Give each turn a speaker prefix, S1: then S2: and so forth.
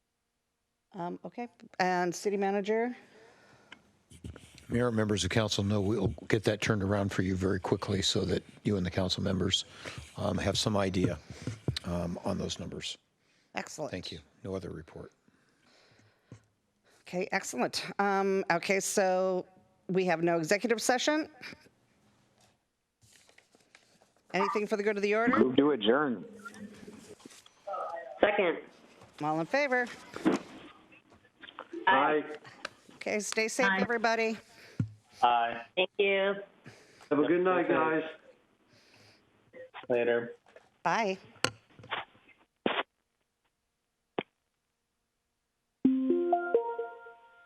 S1: Um, Okay, and city manager?
S2: Mayor, members of council know we'll get that turned around for you very quickly so that you and the council members um, have some idea um, on those numbers.
S1: Excellent.
S2: Thank you. No other report.
S1: Okay, excellent. Um, Okay, so we have no executive session? Anything for the good of the order?
S3: Move to adjourn.
S4: Second.
S1: All in favor?
S3: Aye.
S1: Okay, stay safe, everybody.
S5: Aye.
S4: Thank you.
S6: Have a good night, guys.
S5: Later.
S1: Bye.